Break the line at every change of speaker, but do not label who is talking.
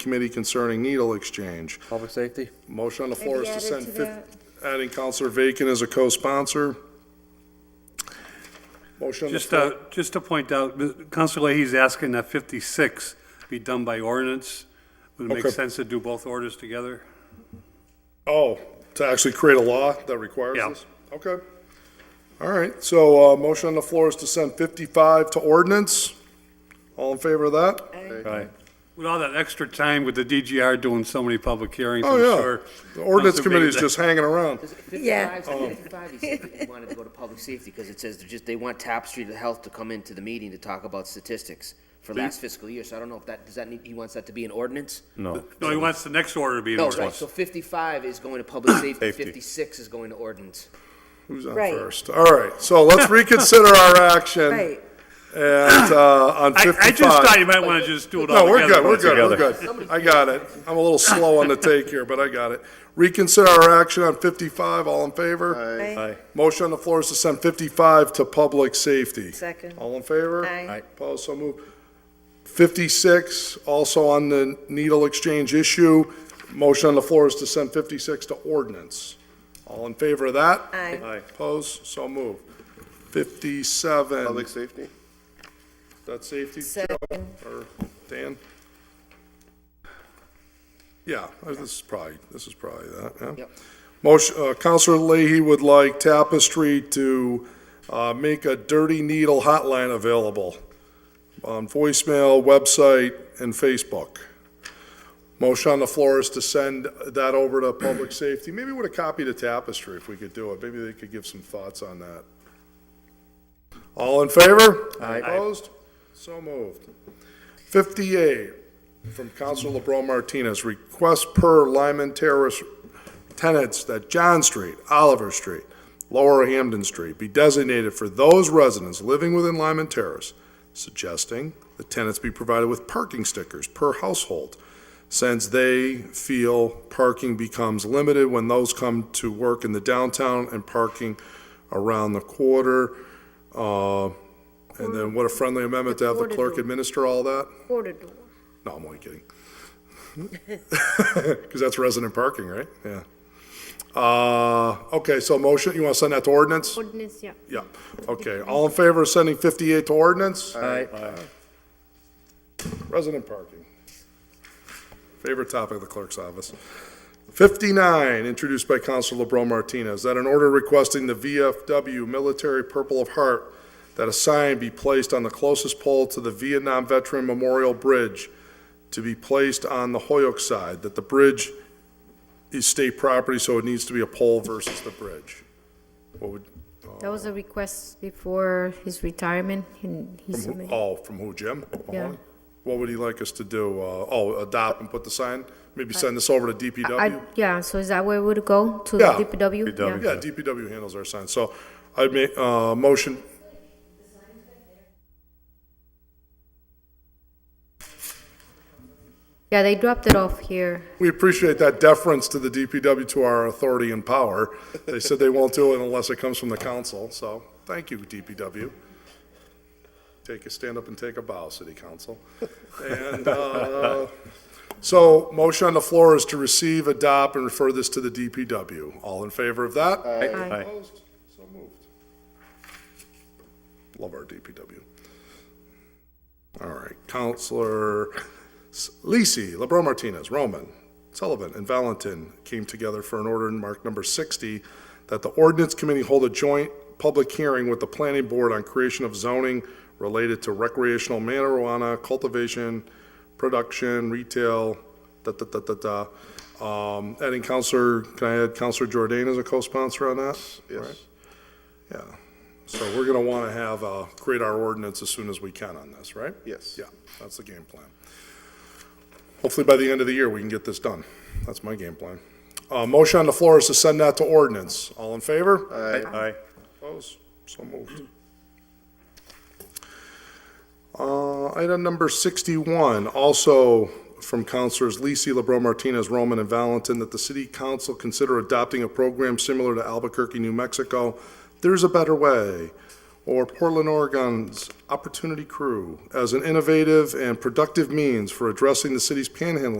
Committee concerning needle exchange.
Public safety?
Motion on the floor is
Maybe
to
add it
send,
to
fif- adding Counselor Vacan as a co-sponsor. Motion on the
Just
floor.
to, just to point out, Counselor Leahy's asking that 56 be done by ordinance. Would it make
Okay.
sense to do both orders together?
Oh, to actually create a law that requires
uh, Yeah.
this? Okay. All right, so, uh, motion on the floor is to send fifty-five to ordinance. All in favor of that?
Right. With all that extra time with the DGR doing so many public hearings, I'm
Oh, yeah.
sure.
The ordinance
Counselor
committee is
Vacan's-
just hanging around.
Yeah.
55, 55, he said that he wanted to go to public safety because it says they're just, they want Top Street Health to come into the meeting to talk about statistics for last fiscal year. So I don't know if that, does that need, he wants that to be an ordinance?
No.
No, he wants the next order to be an
No, right,
ordinance.
so 55 is going to public safety,
Safety.
56 is going to ordinance.
Who's on
Right.
first? All right, so let's reconsider our action
Right,
and, uh, on
I,
fifty-five.
I just thought you might want to just do it all
No, we're
together.
good, we're good, we're good. I got it. I'm a little slow on the take here, but I got it. Reconsider our action on 55, all in favor?
right,
Motion on the floor is to send 55 to public safety.
second,
All in favor?
Aye. Aye.
Opposed, so moved. 56, also on the needle exchange issue, motion on the floor is to send 56 to ordinance. All in favor of that?
Aye.
Aye.
Opposed, so moved. 57.
Public safety?
That's safety, Joe,
second,
or Dan? Yeah, this is probably, this is probably that, yeah.
Yep.
Motion, uh, Counselor Leahy would like Tapestry to, uh, make a Dirty Needle hotline available on voicemail, website, and Facebook. Motion on the floor is to send that over to Public Safety, maybe with a copy to Tapestry if we could do it, maybe they could give some thoughts on that. All in favor? Aye. Opposed? So moved. Fifty-eight, from Council LeBron Martinez, request per Lyman Terrace tenants that John Street, Oliver Street, Lower Hamden Street be designated for those residents living within Lyman Terrace, suggesting the tenants be provided with parking stickers per household, since they feel parking becomes limited when those come to work in the downtown and parking around the quarter. Uh, And then what a friendly amendment to have the clerk administer all that?
quarter door.
No, I'm only kidding. Because that's resident parking, right? Yeah. Uh, okay, so motion, you want to send that to ordinance?
Ordinance, yeah.
Yeah, okay. All in favor of sending 58 to ordinance?
Aye.
Resident parking. Favorite topic of the clerk's office. 59, introduced by Council LeBron Martinez, that an order requesting the VFW Military Purple of Heart that a sign be placed on the closest pole to the Vietnam Veteran Memorial Bridge to be placed on the Hoyok side, that the bridge is state property, so it needs to be a pole versus the bridge. What would,
That was a request before his retirement, and he
Who-
submitted.
Oh, from who, Jim?
Yeah.
Mahoney? What would he like us to do? Uh, oh, adopt and put the sign? Maybe send this over to
Uh, I,
DPW?
yeah, so is that where we would go, to
Yeah.
the DPW?
DPW.
Yeah, DPW handles our signs, so I'd make, uh, motion.
Yeah, they dropped it off here.
We appreciate that deference to the DPW, to our authority and power. They said they won't do it unless it comes from the council, so thank you, DPW. Take a, stand up and take a bow, city council. And, uh, so motion on the floor is to receive, adopt, and refer this to the DPW. All in favor of that?
Aye.
Opposed? So moved. Love our DPW. All right, Counselor Lisi, LeBron Martinez, Roman, Sullivan, and Valentin came together for an order in mark number 60 that the ordinance committee hold a joint public hearing with the planning board on creation of zoning related to recreational marijuana cultivation, production, retail, da, da, da, da, da. Um, Adding Counselor, can I add Counselor Jordan as a co-sponsor on that? Right?
Yes.
Yeah, so we're gonna wanna have, uh, create our ordinance as soon as we can on this, right?
Yes.
Yeah, that's the game plan. Hopefully by the end of the year, we can get this done. That's my game plan. Uh, motion on the floor is to send that to ordinance. All in favor?
Aye.
Opposed? So moved. Uh, Item number 61, also from Counselors Lisi, LeBron Martinez, Roman, and Valentin, that the city council consider adopting a program similar to Albuquerque, New Mexico, There's a Better Way, or Portland, Oregon's Opportunity Crew, as an innovative and productive means for addressing the city's panhandling